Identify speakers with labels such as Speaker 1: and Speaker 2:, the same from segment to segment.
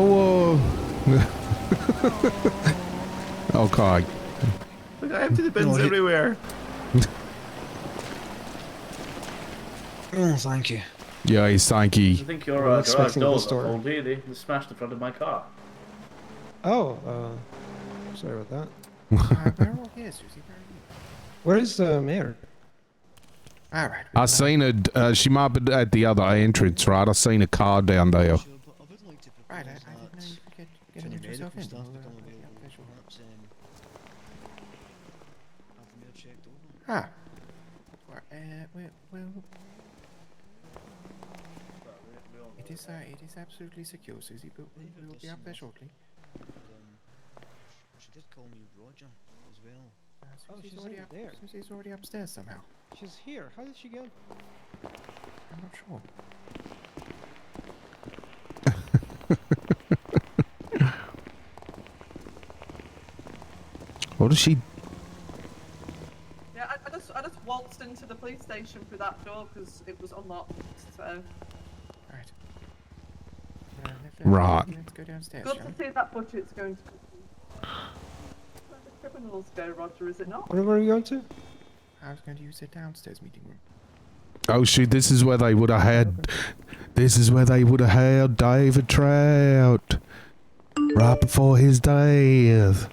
Speaker 1: Yo. Uh... oh God.
Speaker 2: Look, I have to depends
Speaker 3: No, he-
Speaker 2: everywhere.
Speaker 3: Oh, thank you.
Speaker 1: Yeah, he's
Speaker 2: I
Speaker 1: thanky.
Speaker 2: think your
Speaker 3: Well,
Speaker 2: uh,
Speaker 3: that's
Speaker 2: garage
Speaker 3: fixing the
Speaker 2: door,
Speaker 3: store.
Speaker 2: old lady, just smashed the front of my car.
Speaker 3: Oh, uh, sorry about that.
Speaker 4: yeah, Susie, where are
Speaker 3: Where is the mayor?
Speaker 4: you? All right.
Speaker 1: I seen her. Uh, she might be at the other entrance, right? I seen a car down there.
Speaker 4: Right, I, I didn't know you could get, get an interest yourself in. Ah. Where, uh, where, where, it is, uh, it is absolutely secure, Susie, but we will be up there shortly.
Speaker 5: She did call me Roger as well.
Speaker 4: Uh,
Speaker 3: Oh,
Speaker 4: Susie's
Speaker 3: she's
Speaker 4: already up,
Speaker 3: already there.
Speaker 4: Susie's already upstairs somehow.
Speaker 3: She's here. How did she go?
Speaker 4: I'm not sure.
Speaker 1: What is she?
Speaker 6: Yeah, I, I just I just waltzed into the police station through that door because it was unlocked. So
Speaker 4: Right. Uh, left, left,
Speaker 1: Right.
Speaker 4: Let's go downstairs,
Speaker 6: good
Speaker 4: shall
Speaker 6: to
Speaker 4: we?
Speaker 6: see that budget's going to. Where the criminals go, Roger? Is it not?
Speaker 3: Where were we going to?
Speaker 4: I was going to use the downstairs meeting room.
Speaker 1: Oh shoot! This is where they would have had. This is where they would have had David Trout right before his death.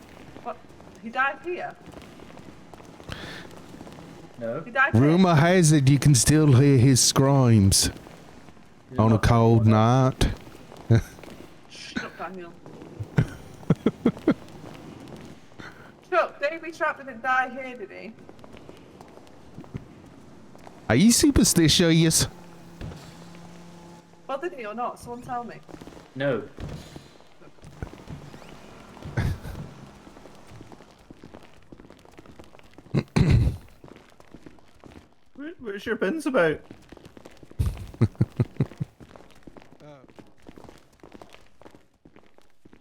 Speaker 6: What? He died here.
Speaker 2: No.
Speaker 6: He died.
Speaker 1: Rumor has it you can still hear his screams on a cold night.
Speaker 6: Here. Shut up, Daniel. Chuck, Davy Trap didn't die here, did he?
Speaker 1: Are you superstitious?
Speaker 6: Well, did he or not? Someone tell me.
Speaker 2: No. What- What's your pins about?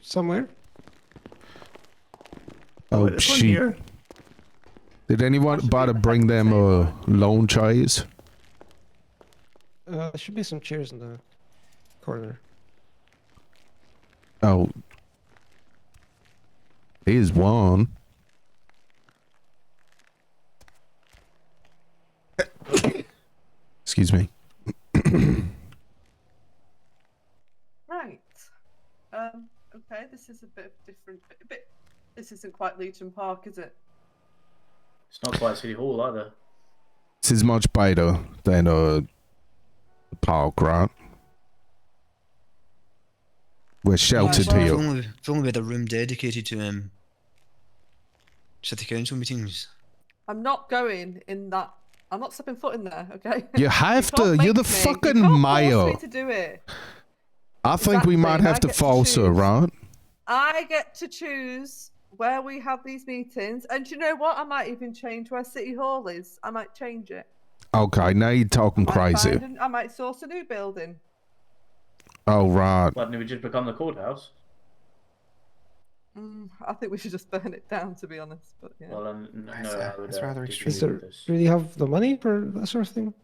Speaker 3: Somewhere.
Speaker 1: Oh,
Speaker 2: this one
Speaker 1: shit!
Speaker 2: here.
Speaker 1: Did anyone bother bring them uh, lawn chairs?
Speaker 3: Uh, there should be some chairs in the corner.
Speaker 1: Oh. Here's one. Excuse me.
Speaker 6: Right. Um. Okay. This is a bit different. A bit. This isn't quite Legion Park, is it?
Speaker 2: It's not quite City Hall either.
Speaker 1: This is much better than uh, the park, right? We're sheltered
Speaker 5: if,
Speaker 1: here.
Speaker 5: only, if only we had a room dedicated to um, city council meetings.
Speaker 6: I'm not going in that. I'm not stepping foot in there. Okay.
Speaker 1: You have
Speaker 6: can't
Speaker 1: to. You're
Speaker 6: make
Speaker 1: the
Speaker 6: me. You
Speaker 1: fucking
Speaker 6: can't
Speaker 1: mayor.
Speaker 6: Force me to do it.
Speaker 1: I think we
Speaker 6: Exactly,
Speaker 1: might have
Speaker 6: I
Speaker 1: to
Speaker 6: get to
Speaker 1: false her,
Speaker 6: choose.
Speaker 1: right?
Speaker 6: I get to choose where we have these meetings, and do you know what? I might even change where City Hall is. I might change it.
Speaker 1: Okay, now you're talking
Speaker 6: I might
Speaker 1: crazy.
Speaker 6: find an- I might source a new building.
Speaker 1: Oh, right.
Speaker 2: Why didn't we just become the courthouse?
Speaker 6: Mm, I think we should just burn it down, to be honest. But yeah.
Speaker 2: Well, um, n- no,
Speaker 4: That's, uh,
Speaker 2: I would,
Speaker 4: that's
Speaker 2: uh,
Speaker 4: rather
Speaker 2: disagree
Speaker 3: Is
Speaker 2: with
Speaker 3: there
Speaker 2: this.
Speaker 3: really have the money for that sort of thing?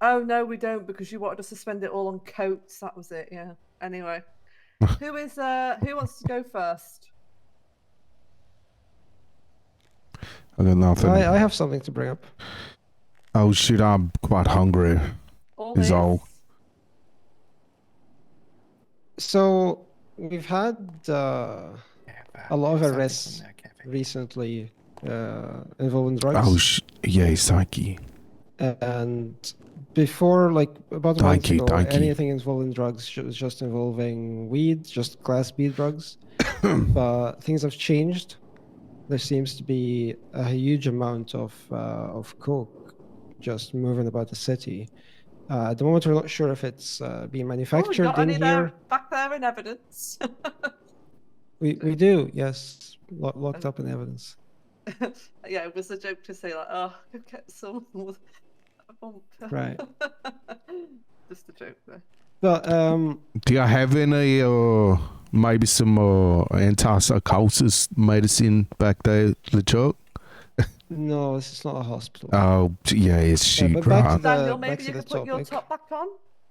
Speaker 6: Oh no, we don't because you wanted us to spend it all on coats. That was it. Yeah. Anyway, who is uh who wants to go first?
Speaker 1: I got nothing.
Speaker 3: I, I have something to bring up.
Speaker 1: Oh, shoot, I'm quite hungry.
Speaker 6: All
Speaker 1: Is
Speaker 6: this?
Speaker 1: all.
Speaker 3: So we've had uh,
Speaker 4: Yeah, but
Speaker 3: A lot of
Speaker 4: something from
Speaker 3: arrests
Speaker 4: that cafe.
Speaker 3: recently uh, involving drugs.
Speaker 1: Oh, sh- yeah, Psyche.
Speaker 3: and before like about a month
Speaker 1: Donkey,
Speaker 3: ago,
Speaker 1: donkey.
Speaker 3: anything involving drugs ju- was just involving weed, just class B drugs. but things have changed. There seems to be a huge amount of uh, of coke just moving about the city. Uh, at the moment, we're not sure if it's uh, being
Speaker 6: Oh, we
Speaker 3: manufactured
Speaker 6: got
Speaker 3: in
Speaker 6: any
Speaker 3: here.
Speaker 6: there, back there in evidence.
Speaker 3: We we do, yes, lo- locked up in evidence.
Speaker 6: yeah, it was a joke to say like, oh, go get someone with a bump.
Speaker 3: Right.
Speaker 6: Just a joke there.
Speaker 3: But um,
Speaker 1: Do you have any, uh, maybe some uh, antipsychosis medicine back there, LeChuck?
Speaker 3: no, this is not a hospital.
Speaker 1: Oh, yeah, it's
Speaker 3: Yeah,
Speaker 1: shit,
Speaker 3: but back to
Speaker 1: right.
Speaker 3: the-
Speaker 6: Daniel,
Speaker 3: back
Speaker 6: maybe
Speaker 3: to
Speaker 6: you
Speaker 3: the
Speaker 6: could put your
Speaker 3: topic.
Speaker 6: top back on.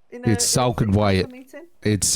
Speaker 6: in a
Speaker 1: It's
Speaker 6: in a
Speaker 1: Salkin
Speaker 6: city council
Speaker 1: Wyatt.
Speaker 6: meeting.
Speaker 1: It's